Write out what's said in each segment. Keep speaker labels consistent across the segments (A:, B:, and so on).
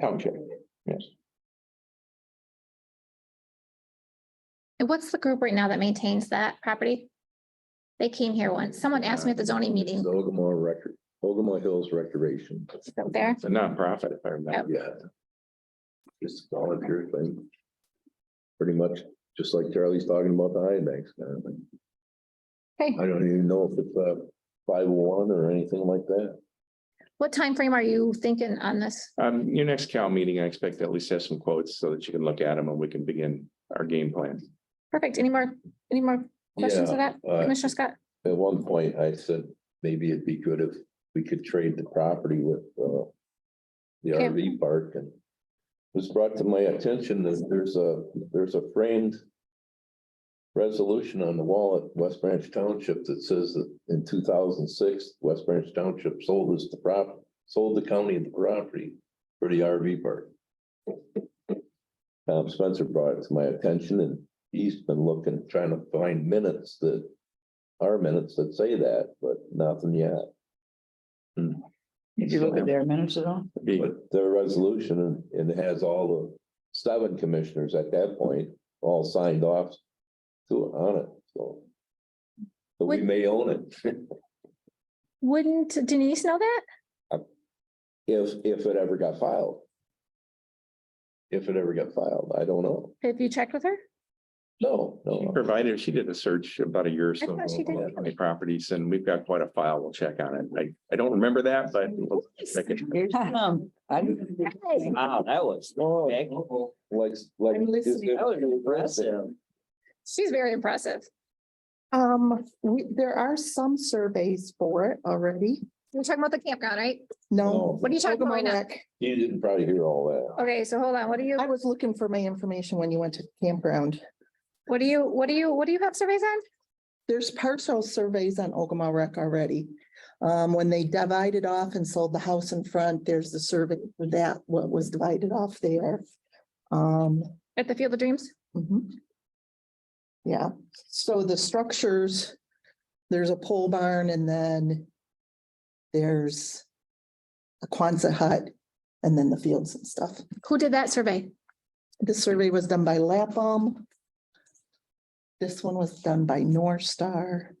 A: Township, yes.
B: And what's the group right now that maintains that property? They came here once. Someone asked me at the zoning meeting,
C: The Ogama record, Ogama Hills Recreation,
B: It's out there.
A: It's a nonprofit, if I remember.
C: yeah. Just volunteer thing. Pretty much, just like Charlie's talking about the high banks kind of thing.
B: Okay.
C: I don't even know if it's a five oh one or anything like that.
B: What time frame are you thinking on this?
A: Um, your next Cal meeting, I expect to at least have some quotes so that you can look at them and we can begin our game plan.
B: Perfect. Any more, any more questions of
C: Yeah,
B: that,
C: uh,
B: Commissioner Scott?
C: At one point, I said, maybe it'd be good if we could trade the property with, uh. The
B: Okay.
C: RV park and. it Was brought to my attention that there's a, there's a framed. Resolution on the wall at West Branch Township that says that in two thousand six, West Branch Township sold us the prop, sold the county the property for the RV park. Tom Spencer brought it to my attention and he's been looking, trying to find minutes that our minutes that say that, but nothing yet.
D: Did you look at their minutes at all?
A: Be-
C: But the resolution and it has all the seven commissioners at that point all signed off to on it, so. So we
B: Would-
C: may own it
B: Wouldn't Denise know that?
C: if if it ever got filed. If it ever got filed, I don't know.
B: Have you checked with her?
C: No,
A: She
C: no.
A: Provided, she did a search about a year or so.
B: thought she
A: ago
B: did.
A: on County properties and we've got quite a file. We'll check on it. I, I don't remember that, but we'll check it.
D: Here's some. I didn't-
E: Wow, that was.
C: No,
E: big.
C: like, like.
D: I'm listening.
E: That was impressive.
B: She's very impressive.
F: Um, we, there are some surveys for it already.
B: You're talking about the campground, right?
F: No.
B: What are you talking about right now?
C: You didn't probably hear all that.
B: Okay, so hold on. What do you,
F: I was looking for my information when you went to the campground.
B: what do you, what do you, what do you have surveys on?
F: There's parcel surveys on Ogama Rec already. Um, when they divided off and sold the house in front, there's the survey for that, what was divided off there. Um,
B: At the Field of Dreams?
F: mhm. Yeah, so the structures, there's a pole barn and then there's a Quonset hut and then the fields and stuff.
B: Who did that survey?
F: This survey was done by Lapham. This one was done by North Star.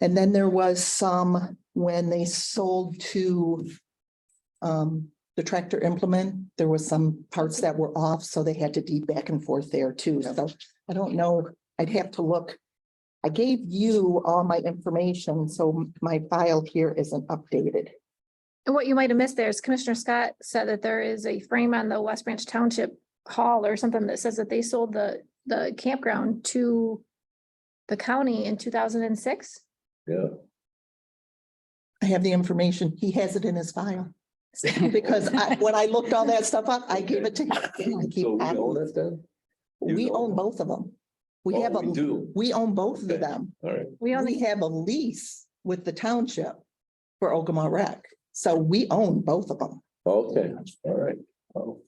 F: And then there was some when they sold to um, the tractor implement, there was some parts that were off, so they had to deep back and forth there too. So I don't know, I'd have to look. I gave you all my information, so my file here isn't updated.
B: And what you might have missed there is Commissioner Scott said that there is a frame on the West Branch Township Hall or something that says that they sold the, the campground to the county in two thousand and six.
C: Yeah.
F: I have the information. He has it in his file. Because I, when I looked all that stuff up, I gave it to him. I keep
C: So we
F: copies.
C: own it then? You
F: We
C: own
F: own
C: it.
F: both of them. We
C: Oh,
F: have a,
C: We do.
F: we own both of
C: Okay.
F: them.
C: All right.
B: We
F: We
B: only,
F: have a lease with the township for Ogama Rec. So we own both of them.
C: Okay, all right. Oh,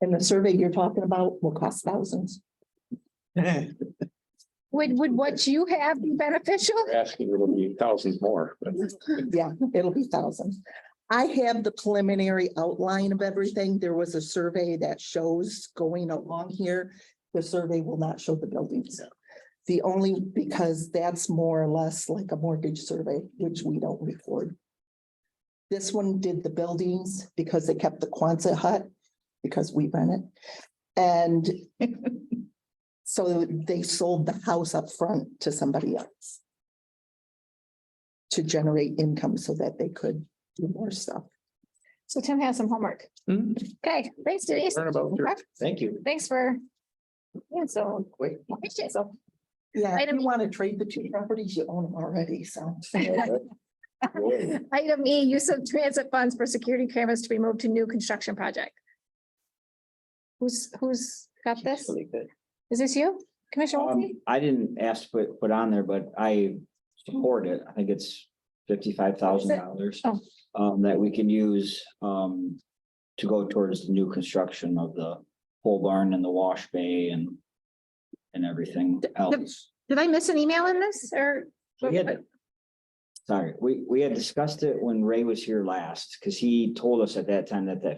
F: And the survey you're talking about will cost thousands.
B: would, would what you have be beneficial?
A: We're asking, it'll be thousands more, but
F: Yeah, it'll be thousands. I have the preliminary outline of everything. There was a survey that shows going along here. The survey will not show the buildings. The only, because that's more or less like a mortgage survey, which we don't record. This one did the buildings because they kept the Quonset hut, because we rent it. And so they sold the house up front to somebody else to generate income so that they could do more stuff.
B: So Tim has some homework.
A: Hmm.
B: Okay, thanks Denise.
A: learn about your
E: Thank you.
B: Thanks for, yeah, so.
E: Quick.
B: So,
F: Yeah, I
B: Item-
F: didn't want to trade the two properties, you own them already, so.
C: all right. Boy.
B: Item E, use of transit funds for security cameras to be moved to new construction project. Who's, who's got this?
E: Really good.
B: Is this you, Commissioner Wiltie?
E: Um, I didn't ask to put, put on there, but I support it. I think it's fifty-five thousand dollars.
B: Oh.
E: Um, that we can use, um, to go towards the new construction of the pole barn and the wash bay and. And everything else.
B: Did I miss an email in this or?
E: We had- Sorry, we, we had discussed it when Ray was here last, because he told us at that time that that